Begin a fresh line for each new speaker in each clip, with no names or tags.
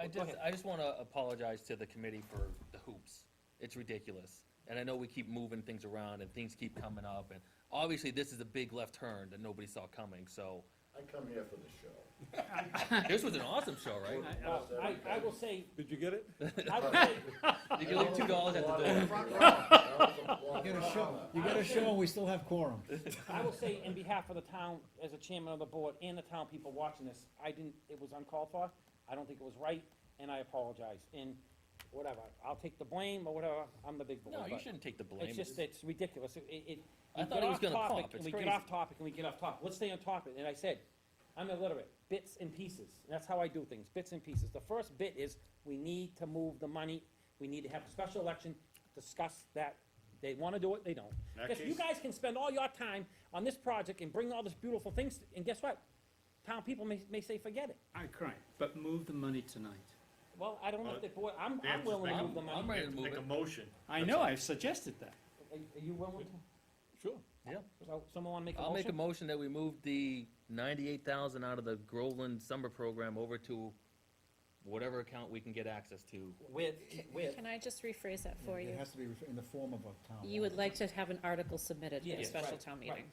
I
go
just, I just want to apologize to the committee for the hoops. It's ridiculous. And I know we keep moving things around and things keep coming up, and obviously, this is a big left turn that nobody saw coming, so
I come here for the show.
this was an awesome show, right?
Uh, I, I will say,
Did you get it?
I will say,
You can leave two dollars at the door.
You get a show.
You gotta show 'em we still have quorum.
I will say in behalf of the town, as a chairman of the board and the town people watching this, I didn't, it was uncalled for, I don't think it was right, and I apologize, and whatever, I'll take the blame or whatever, I'm the big boy.
No, you
but
shouldn't take the blame.
It's just, it's ridiculous, it, it. it-
I
we
thought
get
it was
off
gonna
topic,
pop.
And
It's
we get
crazy.
off topic and we get off topic, let's stay on topic, and I said, I'm illiterate, bits and pieces, and that's how I do things, bits and pieces. The first bit is, we need to move the money, we need to have a special election, discuss that, they wanna do it, they don't.
that
Because you
case-
guys can spend all your time on this project and bring all this beautiful things, and guess what? Town people may, may say, forget it.
I cry, but move the money tonight.
Well, I don't know if the board, I'm,
They have
I'm
to
willing
make
to
a-
move the
I'm-
money.
I'm ready
Have
to
to
move
Make a
it.
motion.
I know, I've suggested that.
Are are you willing to,
Sure.
so someone wanna make a
I'll make a motion
motion?
that we move the ninety-eight thousand out of the Groveland summer program over to whatever account we can get access to.
With, with,
Can I just rephrase that for you?
It has to be in the form of a town.
You would like to have an article submitted for a
Yes,
special
right,
town
right.
meeting.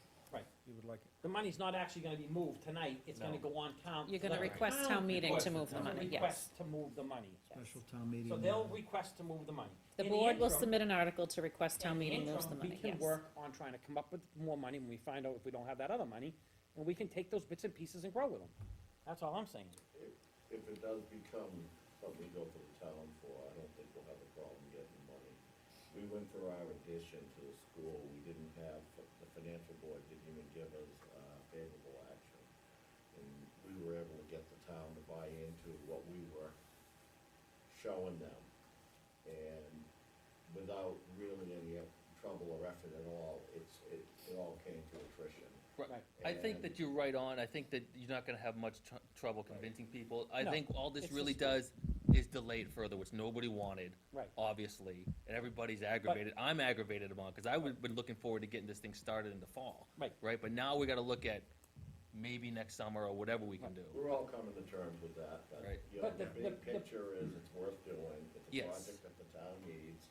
You would like it.
the money's not actually gonna be moved tonight, it's gonna
No.
go on town.
You're gonna
the
request town meeting to move the
It's a
money, yes.
Request to move the money.
Special town meeting.
So they'll request to move the money.
The
In
board will
interim-
submit an article to request town
in the
meeting moves the
interim,
money,
We
yes.
can work on trying to come up with more money when we find out if we don't have that other money, and we can take those bits and pieces and grow with them. That's all I'm saying.
If it does become something we go to the town for, I don't think we'll have a problem getting money. We went for our addition to the school, we didn't have, the financial board didn't even give us uh, favorable action. And we were able to get the town to buy into what we were showing them. And without really any trouble or effort at all, it's, it, it all came to attrition.
Right.
I think
And-
that you're right on. I think that you're not gonna have much tr- trouble convincing people. I
No,
think all this
it's
really
just a-
does is delay it further, which nobody wanted.
Right.
Obviously, and everybody's aggravated. I'm aggravated about, cause I would, been looking forward to getting this thing started in the fall.
Right.
Right, but now we gotta look at maybe next summer or whatever we can do.
We're all coming to terms with that, but,
Right.
you know,
But
the
the-
big
the- the-
picture is it's worth doing, it's a
Yes.
project that the town needs,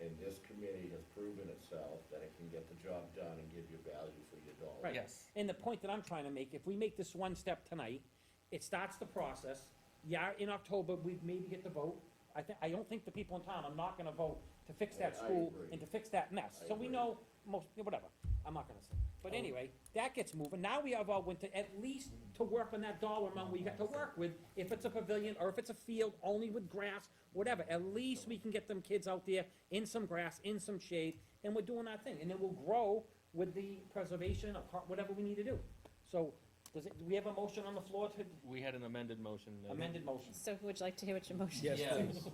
and this committee has proven itself that it can get the job done and give you value for your dollar.
Right.
Yes.
And the point that I'm trying to make, if we make this one step tonight, it starts the process. Yeah, in October, we maybe get the vote. I think, I don't think the people in town are not gonna vote to fix that
I- I
school
agree.
and to fix that mess.
I
So we
agree.
know most, yeah, whatever, I'm not gonna say. But anyway, that gets moving. Now we have our winter, at least to work on that dollar amount we got to work with. If it's a pavilion or if it's a field only with grass, whatever, at least we can get them kids out there in some grass, in some shade, and we're doing our thing. And it will grow with the preservation of part, whatever we need to do. So, does it, do we have a motion on the floor to
We had an amended motion. uh,
amended motion?
So would you like to hear what your motion
Yes,
is?
Yeah.
please.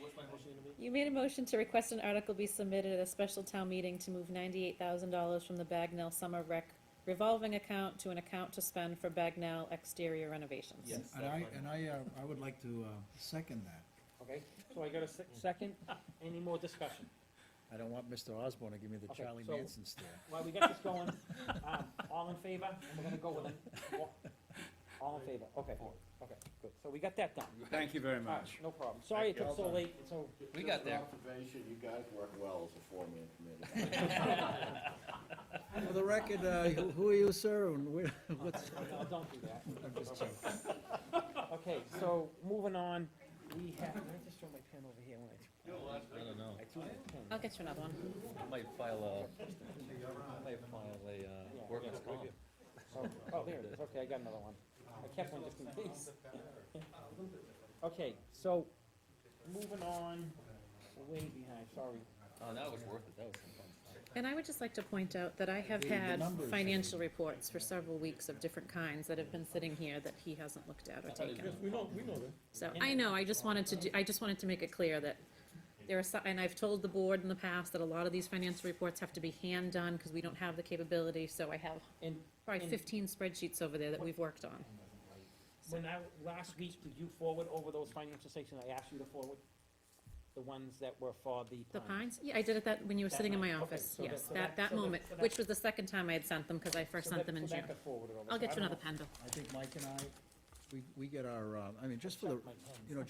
What's my motion gonna be?
You made a motion to request an article be submitted at a special town meeting to move ninety-eight thousand dollars from the Bagnell Summer Rec revolving account to an account to spend for Bagnell exterior renovations.
Yes.
And I, and I, uh, I would like to, uh, second that.
Okay, so I got a se- second. Any more discussion?
I don't want Mr. Osborne to give me the
Okay,
Charlie
so-
Manson stare.
While we got this going, um, all in favor, and we're gonna go with it. All in favor, okay, okay, good, so we got that done.
Thank you very
All right,
much.
no problem, sorry it took so late, and so,
We got there.
Just an observation, you guys work well as a four-man committee.
For the record, uh, who- who are you, sir, and where, what's,
no, don't do that.
I'm just joking.
Okay, so, moving on, we have, I just throw my pen over here when I,
I don't know.
I threw my pen.
I'll get you another one.
I might file a, I might file a, uh, workman's comp.
So- Oh, there it is, okay, I got another one. I kept one just in case. Okay, so, moving on, We're way behind, sorry.
Oh, that was worth it. That was some fun.
And I would just like to point out that I have
The- the
had
numbers are-
financial reports for several weeks of different kinds that have been sitting here that he hasn't looked
Uh,
at or taken.
we know, we know that.
So, I know, I just wanted to, do- I just wanted to make it clear that there are, so- and I've told the board in the past that a lot of these financial reports have to be hand-done because we don't have the capability, so I have
And
probably
And-
fifteen spreadsheets over there that we've worked on.
When I, last week, did you forward over those financial statements I asked you to forward? The ones that were for the
The
pines?
pines, yeah, I did it that, when you were
That
sitting in
night,
my
okay,
office,
so that-
yes,
so that-
that, that
so that-
moment,
so that-
which was the second time I had sent them, because I first
So that-
sent them in
so that
June.
got forwarded over,
I'll
so
get
I
you
don't
another
know.
pen, Bill.
I think Mike and I, we, we get our, uh, I mean, just for the,
Check my pen.
you know,